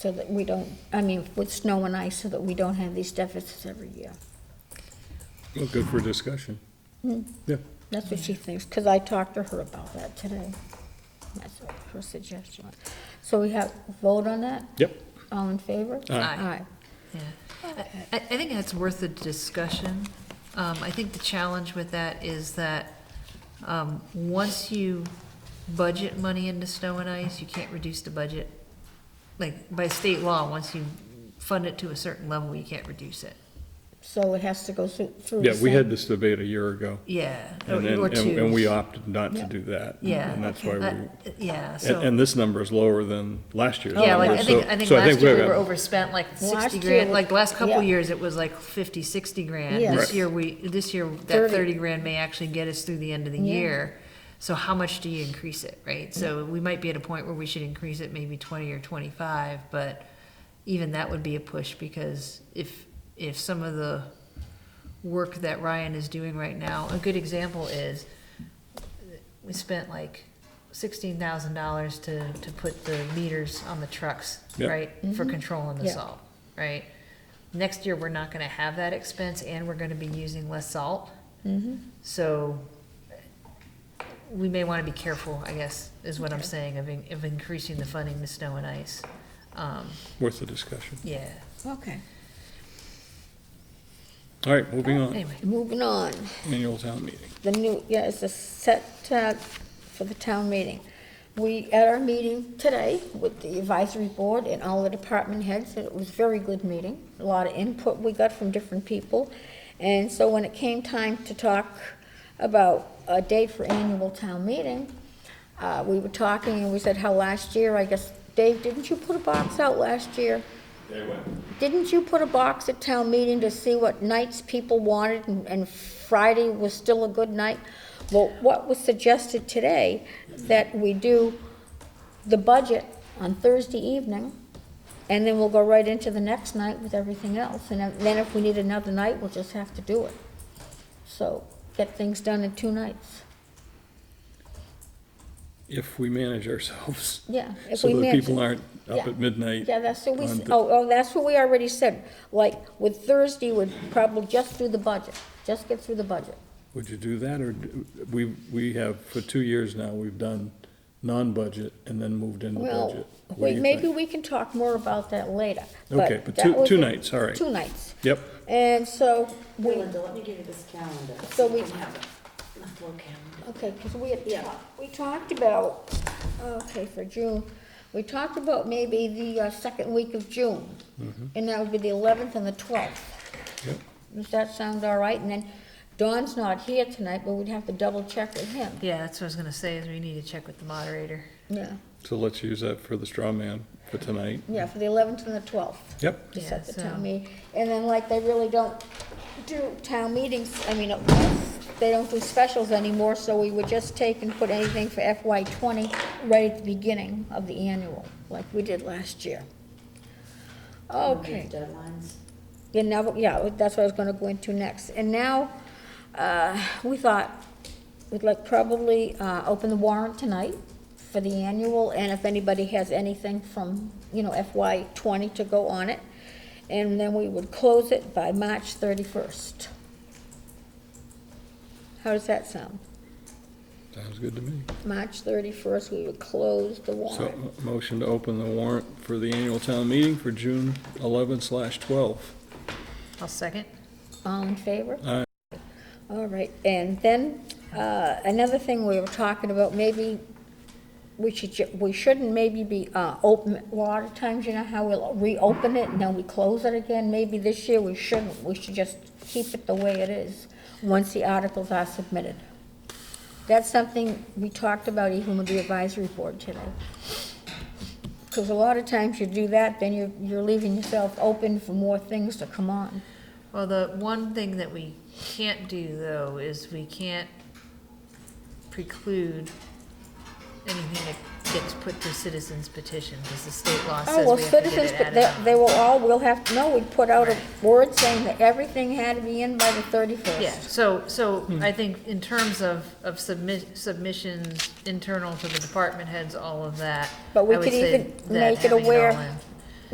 so that we don't, I mean, with snow and ice, so that we don't have these deficits every year. Well, good for discussion. Yeah, That's what she thinks, because I talked to her about that today. That's her suggestion. So we have vote on that? yep. Uh, All in favor? Aye. Aye. Yeah, I, I think that's worth the discussion. Um, I think the challenge with that is that, um, once you budget money into snow and ice, you can't reduce the budget. Like, by state law, once you fund it to a certain level, you can't reduce it. So it has to go through. through Yeah, the we had same- this debate a year ago, Yeah, or and then, or and two. and we opted not to do that. Yeah. And that's why we, Uh, and, Yeah, so, and this number is lower than last year's. yeah, like, number, I think, so- I think so last year we got- were overspent like Last sixty year grand, was- like, the last couple yeah. years, it was like fifty, sixty grand. Yes. This Right. year, we, this year, that Thirty. thirty grand may actually get us through the end of the Yeah. year. So how much do you increase it, right? So we might be at a point where we should increase it maybe twenty or twenty-five, but even that would be a push, because if, if some of the work that Ryan is doing right now, a good example is, we spent like sixteen thousand dollars to, to put the meters on the trucks, Yep. right? For controlling the Yeah. salt, right? Next year, we're not gonna have that expense and we're gonna be using less salt. So we may wanna be careful, I guess, is what I'm saying, of, in- of increasing the funding to snow and ice. Um, Worth the discussion. yeah, Okay, All right, moving on, anyway, moving on. annual town meeting. The new, yeah, it's a set uh, for the town meeting. We, at our meeting today with the advisory board and all the department heads, and it was a very good meeting. A lot of input we got from different people. And so when it came time to talk about a date for annual town meeting, uh, we were talking and we said how last year, I guess, Dave, didn't you put a box out last year? Didn't you put a box at town meeting to see what nights people wanted and- and Friday was still a good night? Well, what was suggested today, that we do the budget on Thursday evening, and then we'll go right into the next night with everything else. And then if we need another night, we'll just have to do it. So get things done in two nights. If we manage ourselves. Yeah, if So we that manage- people aren't up Yeah. at midnight. Yeah, that's what we, on s- the- oh, oh, that's what we already said. Like, with Thursday, we'd probably just do the budget, just get through the budget. Would you do that, or do- we, we have, for two years now, we've done non-budget and then moved into Well, budget? What do wait, you maybe think? we can talk more about that later. Okay, but that two- was two the- nights, all right. Two nights. Yep, And so, we, Linda, let me give you this calendar. So we- You can have it. Let's look at okay, because we had, Yeah. talked- we talked about, okay, for June, we talked about maybe the uh, second week of June. And that would be the 11th and the 12th. Mm-hmm. yep, Does that sound all right? And then Don's not here tonight, but we'd have to double check with him. yeah, that's what I was gonna say, is we need to check with the moderator. Yeah, so let's use that for the straw man for tonight. yeah, for the 11th and the 12th. Yep, to set the Yeah, so- town meeting. And then like they really don't do town meetings, I mean, they don't do specials anymore, so we would just take and put anything for FY twenty right at the beginning of the annual, like we did last year. Okay. the deadlines. Yeah, now, yeah, that's what I was gonna go into next. And now, uh, we thought we'd like probably, uh, open the warrant tonight for the annual, and if anybody has anything from, you know, FY twenty to go on it. And then we would close it by March thirty-first. How does that sound? sounds good to me. March thirty-first, we would close the So, warrant. m- motion to open the warrant for the annual town meeting for June 11 slash 12. I'll second. All in favor? Aye. All right, and then, uh, another thing we were talking about, maybe we should, ju- we shouldn't maybe be, uh, open, a lot of times, you know how we'll reopen it and then we close it again? Maybe this year we shouldn't, we should just keep it the way it is, once the articles are submitted. That's something we talked about even with the advisory board today. Because a lot of times you do that, then you're, you're leaving yourself open for more things to come on. Well, the one thing that we can't do, though, is we can't preclude anything that gets put to citizens petition, because the state law Oh, says well, we have to get citizens, it but added. they, they will all, we'll have, no, we put out a Right. word saying that everything had to be in by the thirty-first. Yeah, so, so I think in terms of, of submit, submissions internal to the department heads, all of that, I But we would could say even that make it having it all aware in.